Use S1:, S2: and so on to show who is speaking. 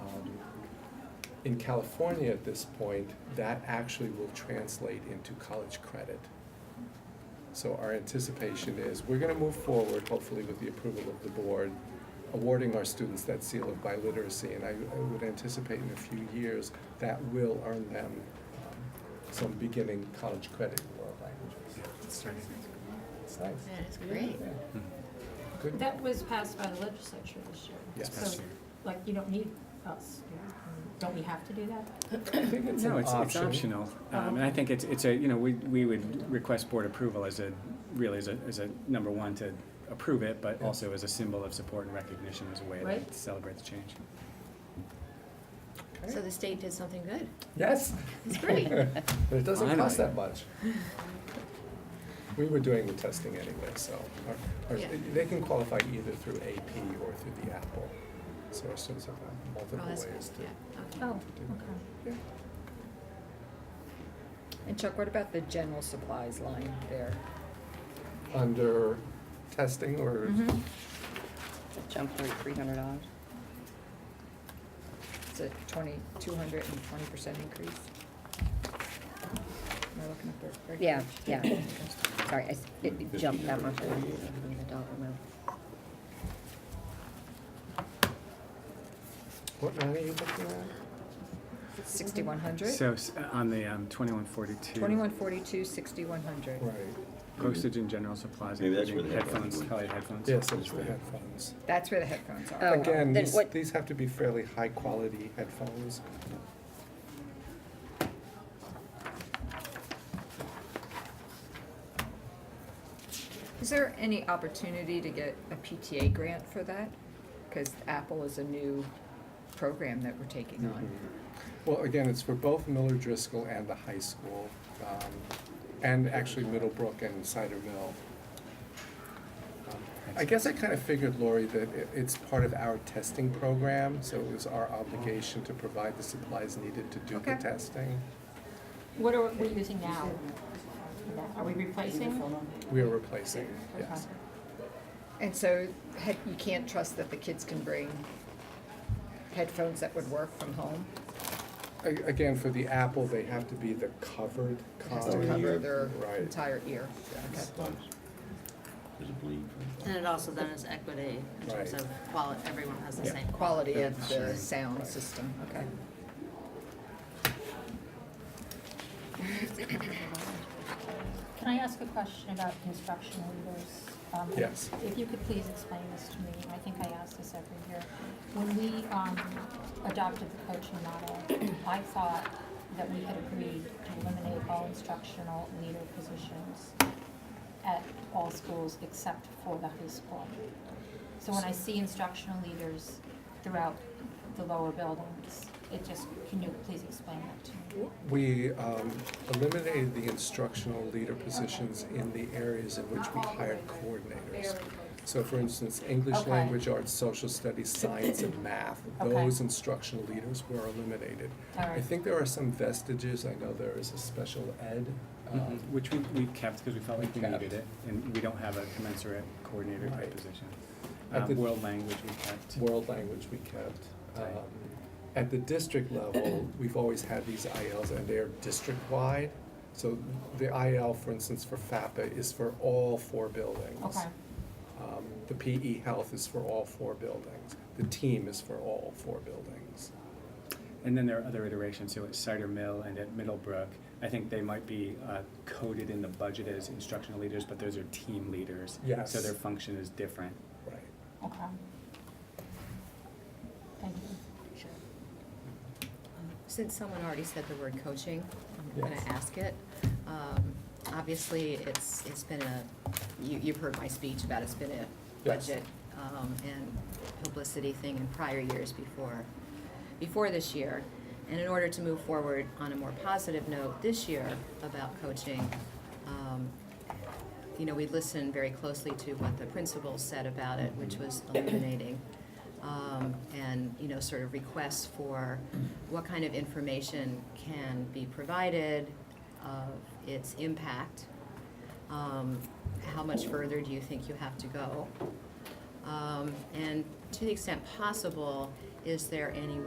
S1: um, in California at this point, that actually will translate into college credit. So our anticipation is, we're gonna move forward, hopefully with the approval of the board, awarding our students that seal of biliteracy, and I, I would anticipate in a few years, that will earn them um, some beginning college credit in world languages. It's nice.
S2: That is great.
S1: Hmm. Good.
S3: That was passed by the legislature this year.
S1: Yes.
S3: So, like, you don't need us, do you? don't we have to do that?
S1: I think it's
S4: No,
S1: an
S4: it's, it's
S1: option.
S4: optional. Um, and I think it's, it's a, you know, we, we would request board approval as a, really as a, as a, number one, to approve it, but
S1: Yeah.
S4: also as a symbol of support and recognition as a way
S3: Right.
S4: to celebrate the change.
S1: Okay.
S2: So the state did something good.
S1: Yes.
S2: It's great.
S1: But it doesn't cost that
S4: Finally.
S1: much. We were doing the testing anyway, so, our- our-
S2: Yeah.
S1: they can qualify either through AP or through the Apple. So our students have multiple
S2: Oh, that's
S1: ways
S2: good.
S1: to.
S2: Yeah, okay.
S3: Oh, okay.
S1: Yeah.
S5: And Chuck, what about the general supplies line there?
S1: Under testing or,
S2: Mhm.
S6: That jumped three, three hundred dollars.
S5: It's a twenty, two hundred and twenty percent increase? Am I looking at the right
S6: Yeah,
S5: page?
S6: yeah. Sorry, I s- it it jumped that much. I don't remember the dollar amount.
S1: what line are you looking at?
S5: Sixty-one hundred?
S4: So s- on the um, 2142,
S5: Twenty-one forty-two, sixty-one hundred.
S1: Right,
S4: postage and general supplies,
S7: Maybe that's
S4: including
S7: where the headphones
S4: headphones,
S7: went.
S4: probably headphones.
S1: yes, it's the headphones.
S5: That's where the headphones
S6: Oh,
S5: are.
S6: well,
S1: Again,
S6: then
S1: these,
S6: what-
S1: these have to be fairly high-quality headphones.
S5: Is there any opportunity to get a PTA grant for that? Because Apple is a new program that we're taking on.
S1: Well, again, it's for both Miller Driscoll and the high school, um, and actually Middlebrook and Cider Mill. Um, I guess I kind of figured, Lori, that it, it's part of our testing program, so it was our obligation to provide the supplies needed to do the
S5: Okay.
S1: testing.
S3: What are we using now? Are we replacing?
S1: We are replacing, yes.
S3: Okay.
S5: And so head- you can't trust that the kids can bring headphones that would work from home?
S1: A- Again, for the Apple, they have to be the covered
S5: It
S1: kind.
S5: has to cover their
S1: Oh, Right,
S5: entire ear. Okay.
S7: Does it bleed from?
S8: And it also then is equity in terms
S1: Right.
S8: of quality, everyone has the
S4: Yeah.
S8: same.
S5: Quality of the
S1: Right.
S5: sound system, okay.
S3: Can I ask a question about instructional leaders? Um,
S1: Yes.
S3: If you could please explain this to me, I think I ask this every year. When we um, adopted the coaching model, I thought that we had agreed to eliminate all instructional leader positions at all schools except for the high school. So when I see instructional leaders throughout the lower buildings, it just, can you please explain that to me?
S1: We um, eliminated the instructional leader positions in the areas in which we hired coordinators. So for instance, English
S3: Okay.
S1: language, arts, social studies, science, and math,
S3: Okay.
S1: those instructional leaders were eliminated.
S3: All
S1: I
S3: right.
S1: think there are some vestiges, I know there is a special ed, um,
S4: Mhm, Which we, we kept because we felt like we
S1: Kept.
S4: needed it, and we don't have a commensurate coordinator type
S1: Right.
S4: position.
S1: I
S4: Um,
S1: think-
S4: World language we kept.
S1: world language we kept.
S4: Right.
S1: Um, At the district level, we've always had these ILs and they're district-wide. So the IL, for instance, for FAPA is for all four buildings.
S3: Okay,
S1: Um, The PE health is for all four buildings. The team is for all four buildings.
S4: And then there are other iterations, so at Cider Mill and at Middlebrook, I think they might be uh, coded in the budget as instructional leaders, but those are team leaders.
S1: Yes.
S4: So their function is different.
S1: Right.
S3: okay. Thank you.
S2: Um, Since someone already said the word coaching, I'm gonna
S1: Yes.
S2: ask it. Um, Obviously, it's, it's been a, you, you've heard my speech about it's been a
S1: Yes.
S2: budget um, and publicity thing in prior years before, before this year. And in order to move forward on a more positive note this year about coaching, um, you know, we listened very closely to what the principal said about it, which was illuminating. Um, and, you know, sort of requests for what kind of information can be provided, of its impact. Um, how much further do you think you have to go? Um, and to the extent possible, is there any